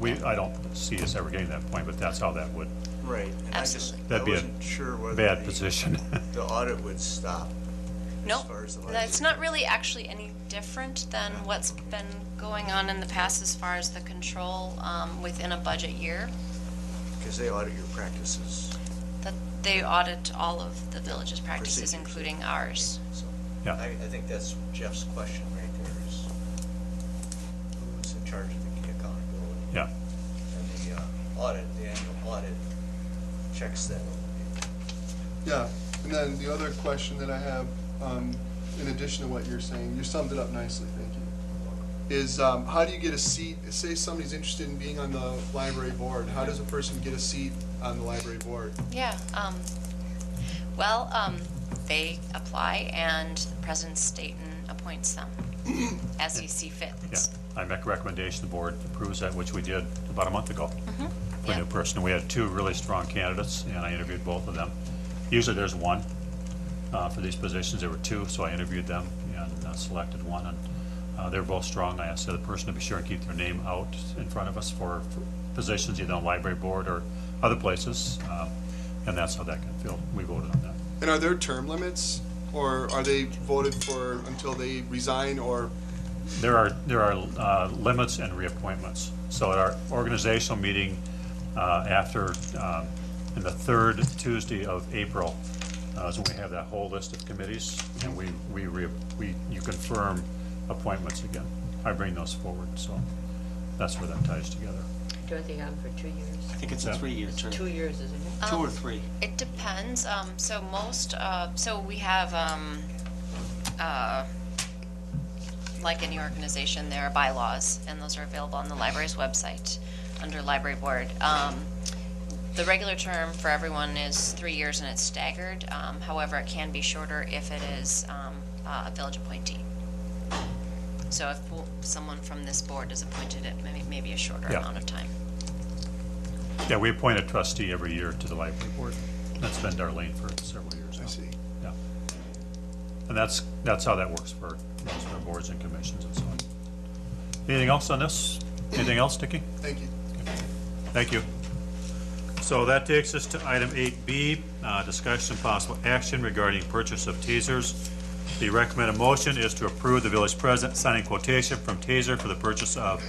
We, I don't see us ever getting to that point, but that's how that would, Right. and I just- Absolutely. I That'd be a wasn't sure whether bad the- position. The audit would stop. No, far as the that's liability. not really actually any different than what's been going on in the past as far as the control um, within a budget year. Because they audit your practices, That they audit all of the village's practices, Procedures. including ours. so. Yeah. I, I think that's Jeff's question right there is who's in charge of the accountability? Yeah, And the uh, audit, the annual audit checks that. Yeah, and then the other question that I have, um, in addition to what you're saying, you summed it up nicely, thank you, is, um, how do you get a seat, say somebody's interested in being on the library board, how does a person get a seat on the library board? Yeah, um, well, um, they apply and President Staten appoints them as E he see fit. yeah. I make a recommendation, the board approves that, which we did about a month ago. For a yeah. new person. We had two really strong candidates, and I interviewed both of them. Usually there's one. Uh, for these positions, there were two, so I interviewed them and uh, selected one, and, uh, they're both strong. I asked the other person to be sure and keep their name out in front of us for for positions either on library board or other places, uh, and that's how that got filled. We voted on that. And are there term limits, or are they voted for until they resign, or, There are, there are uh, limits and reappointments. So at our organizational meeting uh, after, um, in the third Tuesday of April, uh, is when we have that whole list of committees, and we, we, re- we you confirm appointments again. I bring those forward, so that's where that ties together. Dorothy, on for two I years. think it's a What's that? three-year term, Two two years, isn't it? or three. It depends, um, so most, uh, so we have, um, uh, like any organization, there are bylaws, and those are available on the library's website, under library board. Um, the regular term for everyone is three years and it's staggered, um, however, it can be shorter if it is, um, a village appointee. So if someone from this board is appointed, it may, may be a shorter Yeah. amount of time. Yeah, we appoint a trustee every year to the library board. That's been Darlene for several years now. I see. Yeah. And that's, that's how that works for most of our boards and commissions and so on. Anything else on this? Anything else, Nikki? thank you. Thank you. So that takes us to item 8B, uh, discussion and possible action regarding purchase of tasers. The recommended motion is to approve the village president signing quotation from Taser for the purchase of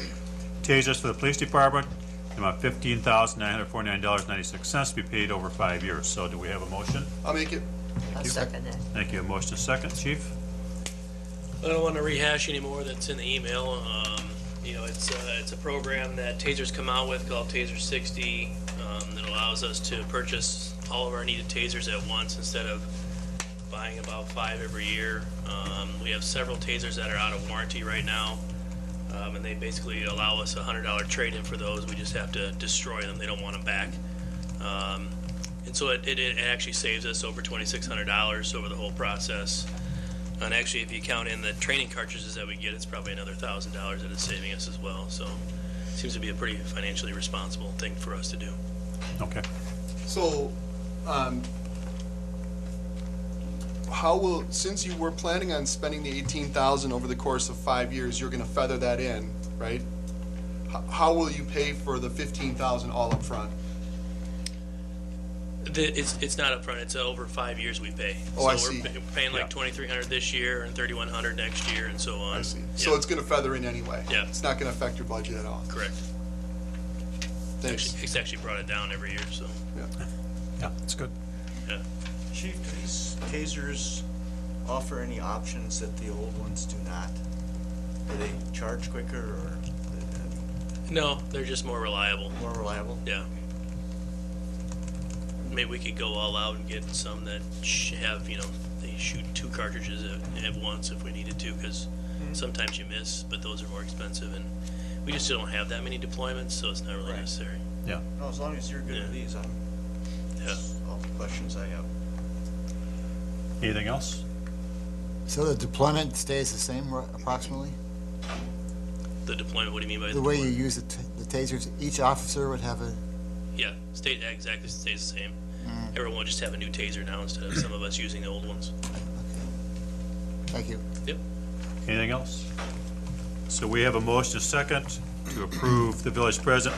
tasers for the police department, the amount $15,949.96 to be paid over five years. So do we have a motion? I'll make it, I'll second that. Thank you. A motion is second. Chief? I don't want to rehash anymore that's in the email. Um, you know, it's, uh, it's a program that Taser's come out with called Taser 60 um, that allows us to purchase all of our needed tasers at once instead of buying about five every year. Um, we have several tasers that are out of warranty right now. Um, and they basically allow us a hundred dollar trade-in for those. We just have to destroy them. They don't want them back. Um, and so it, it, it actually saves us over twenty-six hundred dollars over the whole process. And actually, if you count in the training cartridges that we get, it's probably another thousand dollars that it's saving us as well. So seems to be a pretty financially responsible thing for us to do. Okay. so, um, how will, since you were planning on spending the eighteen thousand over the course of five years, you're gonna feather that in, right? How, how will you pay for the fifteen thousand all up front? The, it's, it's not upfront, it's over five years we pay. Oh, I So see. we're pay- paying Yeah. like twenty-three hundred this year and thirty-one hundred next year and so on. I see. Yeah, So it's gonna feather in anyway? Yeah. It's not gonna affect your budget at all? Correct. Thanks. Actually- It's actually brought it down every year, so, Yeah, that's good. yeah. Chief, do these tasers offer any options that the old ones do not? Do they charge quicker or No, they're just more reliable, more reliable? yeah. Maybe we could go all out and get some that sh- have, you know, they shoot two cartridges at, at once if we needed to, because sometimes you miss, but those are more expensive, and we just don't have that many deployments, so it's not really Right. necessary. Yeah. No, as long as you're good at these, I'm, Yeah. that's all the questions I have. Anything else? So the deployment stays the same ro- approximately? The deployment, what do you mean by The way you deployment? use the t- the tasers, each officer would have a, Yeah, stay, exactly, stays the same. Mm. Everyone will just have a new taser now instead of some of us using the old ones. thank you. Yep. Anything else? So we have a motion, a second, to approve the village president